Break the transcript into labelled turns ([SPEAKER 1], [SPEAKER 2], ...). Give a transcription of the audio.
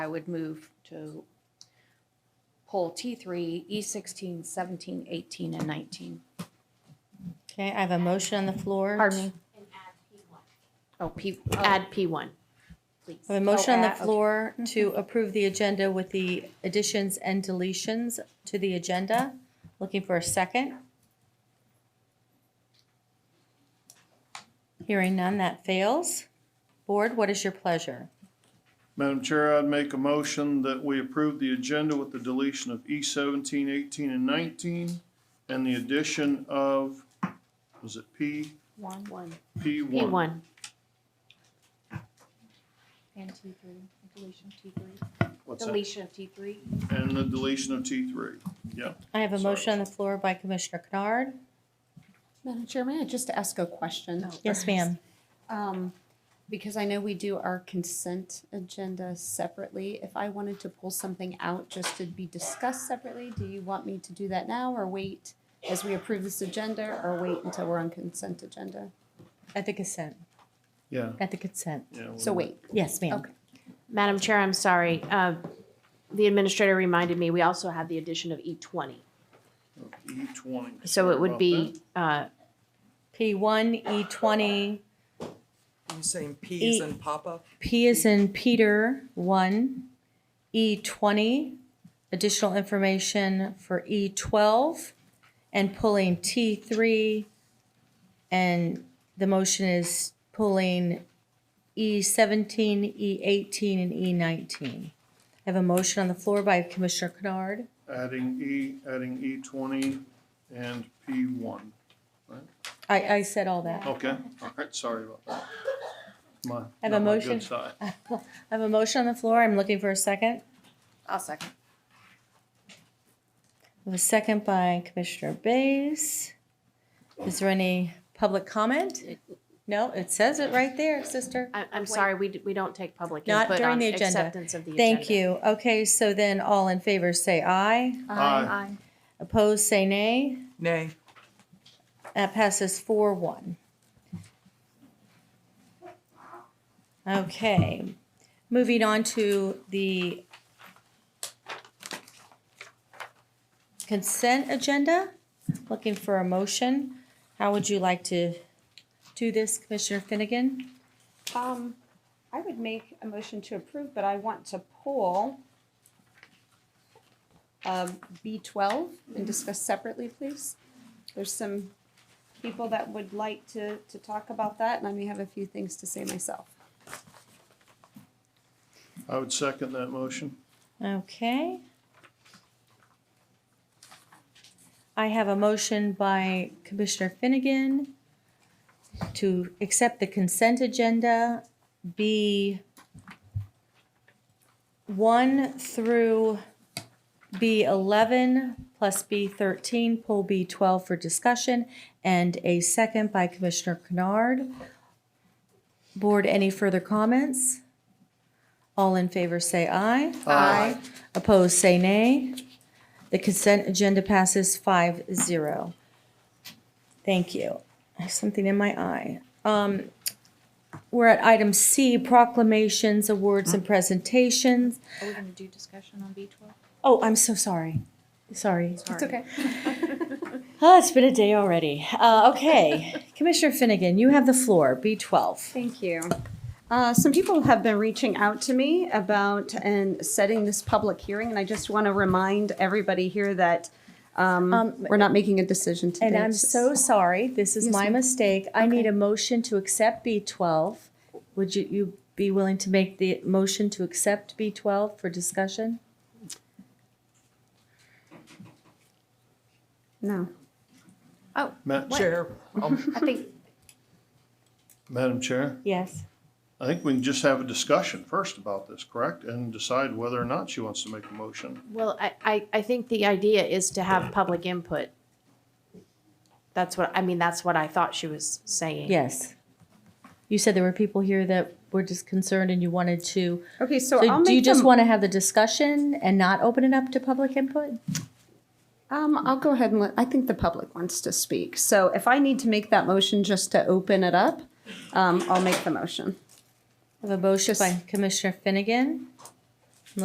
[SPEAKER 1] I would move to pull E T3, E16, 17, 18, and 19.
[SPEAKER 2] Okay, I have a motion on the floor.
[SPEAKER 1] Pardon me? Oh, P, add P1, please.
[SPEAKER 2] I have a motion on the
[SPEAKER 1] Oh, add- okay.
[SPEAKER 2] floor to approve the agenda with the additions and deletions to the agenda. Looking for a second. Hearing none, that fails. Board, what is your pleasure?
[SPEAKER 3] Madam Chair, I'd make a motion that we approve the agenda with the deletion of E seventeen, eighteen, and nineteen, and the addition of, was it P,
[SPEAKER 1] One, one,
[SPEAKER 3] P one?
[SPEAKER 1] P1. And T3, deletion T3,
[SPEAKER 3] What's that?
[SPEAKER 1] deletion of T3.
[SPEAKER 3] And the deletion of T three, yeah.
[SPEAKER 2] I have a
[SPEAKER 3] Sorry.
[SPEAKER 2] motion on the floor by Commissioner Kennard.
[SPEAKER 4] Madam Chair, may I just ask a question?
[SPEAKER 2] Yes, ma'am.
[SPEAKER 4] Um, because I know we do our consent agenda separately. If I wanted to pull something out just to be discussed separately, do you want me to do that now or wait as we approve this agenda or wait until we're on consent agenda?
[SPEAKER 2] At the consent,
[SPEAKER 3] Yeah.
[SPEAKER 2] at the consent.
[SPEAKER 3] yeah,
[SPEAKER 4] So wait,
[SPEAKER 2] Yes, ma'am.
[SPEAKER 4] Okay.
[SPEAKER 5] Madam Chair, I'm sorry. Uh, The administrator reminded me, we also have the addition of E20.
[SPEAKER 3] E twenty.
[SPEAKER 5] So it would be, uh,
[SPEAKER 2] P1, E20,
[SPEAKER 6] You saying peas
[SPEAKER 2] Eat.
[SPEAKER 6] and Papa?
[SPEAKER 2] P is in Peter, one. E twenty, additional information for E twelve, and pulling T three. And the motion is pulling E seventeen, E eighteen, and E nineteen. I have a motion on the floor by Commissioner Kennard.
[SPEAKER 3] Adding E, adding E twenty and P one.
[SPEAKER 2] I, I said all that.
[SPEAKER 3] Okay, all right, sorry about that. My,
[SPEAKER 2] I have a
[SPEAKER 3] not my
[SPEAKER 2] motion.
[SPEAKER 3] good side.
[SPEAKER 2] I have a motion on the floor. I'm looking for a second.
[SPEAKER 1] I'll second.
[SPEAKER 2] I have a second by Commissioner Bays. Is there any public comment? No, it says it right there, sister.
[SPEAKER 5] I- I'm sorry, we d- we don't take public
[SPEAKER 2] Not
[SPEAKER 5] input
[SPEAKER 2] during
[SPEAKER 5] on
[SPEAKER 2] the agenda.
[SPEAKER 5] acceptance of the agenda.
[SPEAKER 2] Thank you. Okay, so then all in favor say aye.
[SPEAKER 3] Aye.
[SPEAKER 2] Opposed, say nay.
[SPEAKER 6] Nay.
[SPEAKER 2] That Uh, passes four one. Okay, moving on to the consent agenda, looking for a motion. How would you like to do this, Commissioner Finnegan?
[SPEAKER 7] Um, I would make a motion to approve, but I want to pull
[SPEAKER 4] um, B twelve and discuss separately, please. There's some
[SPEAKER 7] people that would like to, to talk about that,
[SPEAKER 4] that and I may have a few things to say myself.
[SPEAKER 3] I would second that motion.
[SPEAKER 2] Okay. I have a motion by Commissioner Finnegan to accept the consent agenda B one through B eleven plus B thirteen, pull B twelve for discussion, and a second by Commissioner Kennard. Board, any further comments? All in favor, say aye. Aye. Opposed, say nay. The consent agenda passes five zero. Thank you. I have something in my eye. Um, We're at item C, proclamations, awards, and presentations.
[SPEAKER 1] Are we going to do discussion on B12?
[SPEAKER 2] Oh, I'm so sorry. Sorry.
[SPEAKER 1] It's okay.
[SPEAKER 2] Oh, it's been a day already. Uh, Okay, Commissioner Finnegan, you have the floor, B12.
[SPEAKER 7] Thank you.
[SPEAKER 4] Uh, some people have been reaching out to me about and setting this public hearing, and I just want to remind everybody here that um, we're not making a decision today.
[SPEAKER 2] And I'm
[SPEAKER 4] It's just-
[SPEAKER 2] so sorry, this is
[SPEAKER 4] Yes,
[SPEAKER 2] my
[SPEAKER 4] ma'am.
[SPEAKER 2] mistake. I need a motion to accept B12. Would you, you be willing to make the motion to accept B12 for discussion?
[SPEAKER 4] no.
[SPEAKER 3] Ma-
[SPEAKER 6] Chair, Um, I'll
[SPEAKER 1] I think,
[SPEAKER 3] Madam Chair?
[SPEAKER 2] Yes.
[SPEAKER 3] I think we can just have a discussion first about this, correct? And decide whether or not she wants to make a motion.
[SPEAKER 5] Well, I- I I think the idea is to have public input. That's what, I mean, that's what I thought she was saying.
[SPEAKER 2] Yes. You said there were people here that were just concerned and you wanted to,
[SPEAKER 4] Okay, so, I'll
[SPEAKER 2] so
[SPEAKER 4] make
[SPEAKER 2] do you just
[SPEAKER 4] them-
[SPEAKER 2] want to have the discussion and not open it up to public input?
[SPEAKER 4] Um, I'll go ahead and let, I think the public wants to speak. So if I need to make that motion just to open it up, um, I'll make the motion.
[SPEAKER 2] I have a motion
[SPEAKER 4] Just-
[SPEAKER 2] by Commissioner Finnegan